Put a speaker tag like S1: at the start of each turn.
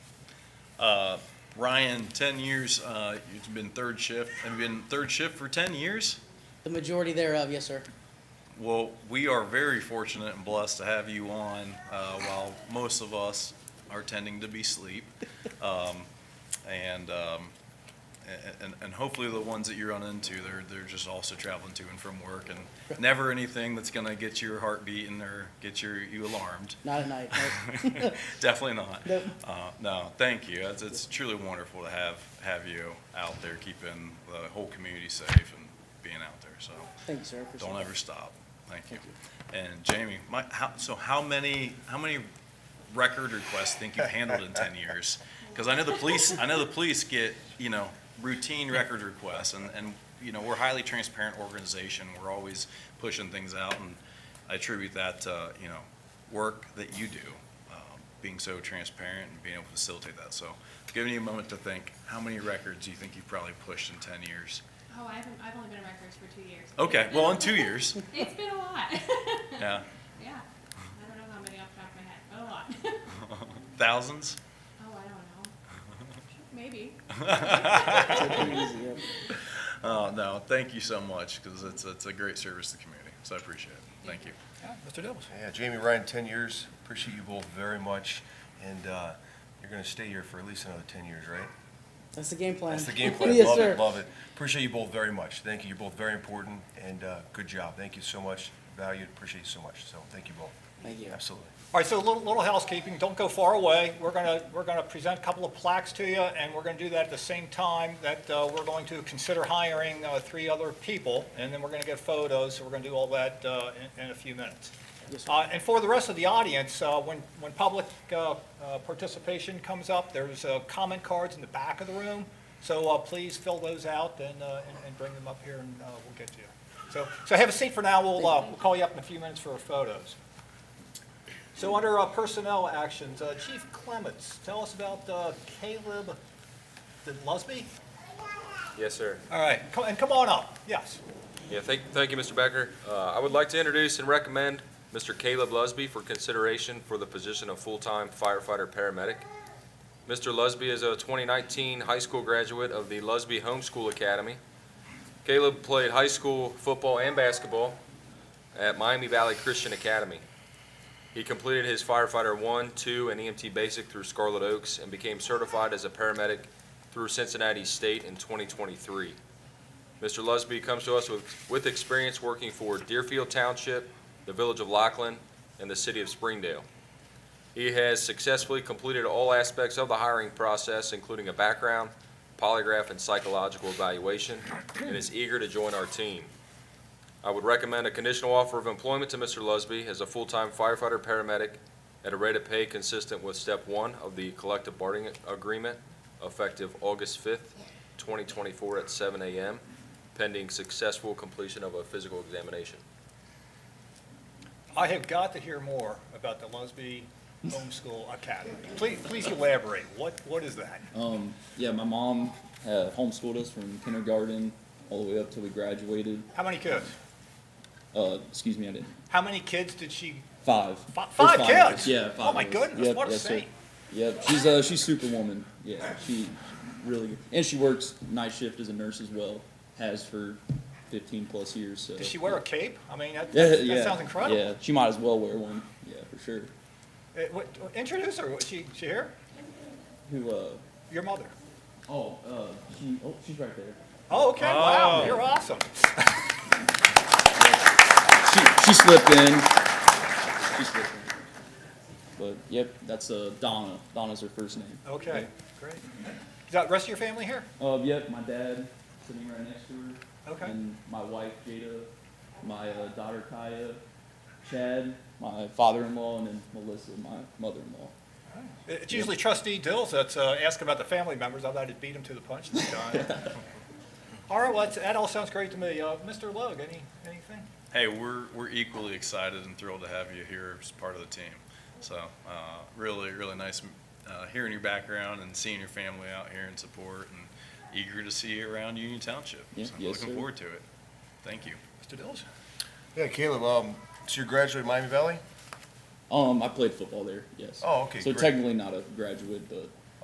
S1: Uh, Ryan, ten years, uh, it's been third shift, have you been third shift for ten years?
S2: The majority thereof, yes, sir.
S1: Well, we are very fortunate and blessed to have you on uh, while most of us are tending to be asleep. Um, And, um, a- and, and hopefully the ones that you run into, they're, they're just also traveling to and from work and never anything that's gonna get your heart beating or get your, you alarmed.
S2: Not at night. no.
S1: Definitely not.
S2: Nope.
S1: Uh, No, thank you. It's, it's truly wonderful to have, have you out there keeping the whole community safe and being out there, so.
S2: Thank you, sir. Appreciate
S1: Don't
S2: it.
S1: ever stop. Thank you.
S2: Thank
S1: And Jamie, my, how, so how many, how many record requests think you've handled in ten years? Because I know the police, I know the police get, you know, routine record requests and, and, you know, we're a highly transparent organization. We're always pushing things out and I attribute that to, you know, work that you do, um, being so transparent and being able to facilitate that. So giving you a moment to think, how many records do you think you've probably pushed in ten years?
S3: Oh, I haven't, I've only been in records for two years.
S1: Okay, well, in two years,
S3: It's been a lot.
S1: yeah,
S3: Yeah, I don't know how many off the top of my head, but a lot.
S1: thousands?
S3: Oh, I don't know. Maybe.
S2: Take it easy, yeah.
S1: Uh, no, thank you so much, because it's, it's a great service to the community, so I appreciate it. Thank you.
S4: Mr. Dibbles.
S5: Yeah, Jamie, Ryan, 10 years, appreciate you both very much, and uh, you're going to stay here for at least another 10 years, right?
S2: That's the game plan.
S5: That's the game plan,
S2: Yes,
S5: love
S2: sir.
S5: it, love it. Appreciate you both very much, thank you, you're both very important, and uh, good job, thank you so much, valued, appreciate you so much, so thank you both,
S2: Thank you.
S5: absolutely.
S4: All right, so a little, little housekeeping, don't go far away. We're gonna, we're gonna present a couple of plaques to you, and we're gonna do that at the same time that uh, we're going to consider hiring uh, three other people, and then we're gonna get photos, so we're gonna do all that uh, in, in a few minutes.
S2: Yes, sir.
S4: Uh, And for the rest of the audience, uh, when, when public uh, uh, participation comes up, there's uh, comment cards in the back of the room, so uh, please fill those out and, uh, and- and bring them up here, and uh, we'll get to you. So, so have a seat for now, we'll, uh, we'll call you up in a few minutes for photos. So under uh, personnel actions, uh, Chief Clements, tell us about uh, Caleb Lusby?
S6: Yes, sir.
S4: All right, co- and come on up, yes.
S6: Yeah, thank, thank you, Mr. Becker. Uh, I would like to introduce and recommend Mr. Caleb Lusby for consideration for the position of full-time firefighter paramedic. Mr. Lusby is a 2019 high school graduate of the Lusby Homeschool Academy. Caleb played high school football and basketball at Miami Valley Christian Academy. He completed his firefighter one, two, and EMT basic through Scarlet Oaks and became certified as a paramedic through Cincinnati State in 2023. Mr. Lusby comes to us with, with experience working for Deerfield Township, the Village of Lachlan, and the City of Springdale. He has successfully completed all aspects of the hiring process, including a background, polygraph, and psychological evaluation, and is eager to join our team. I would recommend a conditional offer of employment to Mr. Lusby as a full-time firefighter paramedic at a rate of pay consistent with step one of the collective bargaining agreement effective August fifth, twenty twenty-four at seven AM pending successful completion of a physical examination.
S4: I have got to hear more about the Lusby Homeschool Academy. Please, please elaborate, what, what is that?
S7: Um, yeah, my mom uh, homeschooled us from kindergarten all the way up till we graduated.
S4: How many kids?
S7: Uh, excuse me, I didn't.
S4: How many kids did she,
S7: Five.
S4: Fi-
S7: There's
S4: five
S7: of
S4: kids?
S7: us. Yeah,
S4: Oh
S7: five.
S4: my
S7: of us.
S4: goodness,
S7: Yep,
S4: what a
S7: yes, sir.
S4: saint.
S7: Yep, she's uh, she's superwoman. Yeah, she really good. And she works night shift as a nurse as well. Has for 15 plus years. So.
S4: does she wear a cape? I mean, that,
S7: Yeah,
S4: that
S7: yeah,
S4: that sounds incredible.
S7: Yeah, she might as well wear one. Yeah, for sure.
S4: Uh, what- Introduce her, Was she, she here?
S7: Who? uh,
S4: Your mother?
S7: Oh, uh, she, oh, she's right there.
S4: Oh, okay, wow, you're awesome.
S7: She, she slipped in. She slipped in. But yep, that's uh, Donna. Donna's her first name.
S4: Okay, great. Is that rest of your family here?
S7: Uh, yep, my dad sitting right next to her.
S4: Okay.
S7: And my wife Jada, my uh, daughter Kaya, Chad, my father-in-law, and then Melissa, my mother-in-law.
S4: It's usually trustee Dills that's uh, asking about the family members. I thought he'd beat him to the punch this time. All right, well, that's- that all sounds great to me. Uh, Mr. Logue, any, anything?
S1: Hey, we're, we're equally excited and thrilled to have you here as part of the team. So, uh, really, really nice, uh, hearing your background and seeing your family out here in support and eager to see you around Union Township.
S7: Yeah,
S1: So,
S7: yes,
S1: Looking
S7: sir.
S1: forward to it. Thank you.
S4: Mr. Dills?
S5: Yeah, Caleb, um, so you graduated Miami Valley?
S7: Um, I played football there. Yes.
S5: Oh, okay,
S7: So
S5: great.
S7: technically not a graduate, but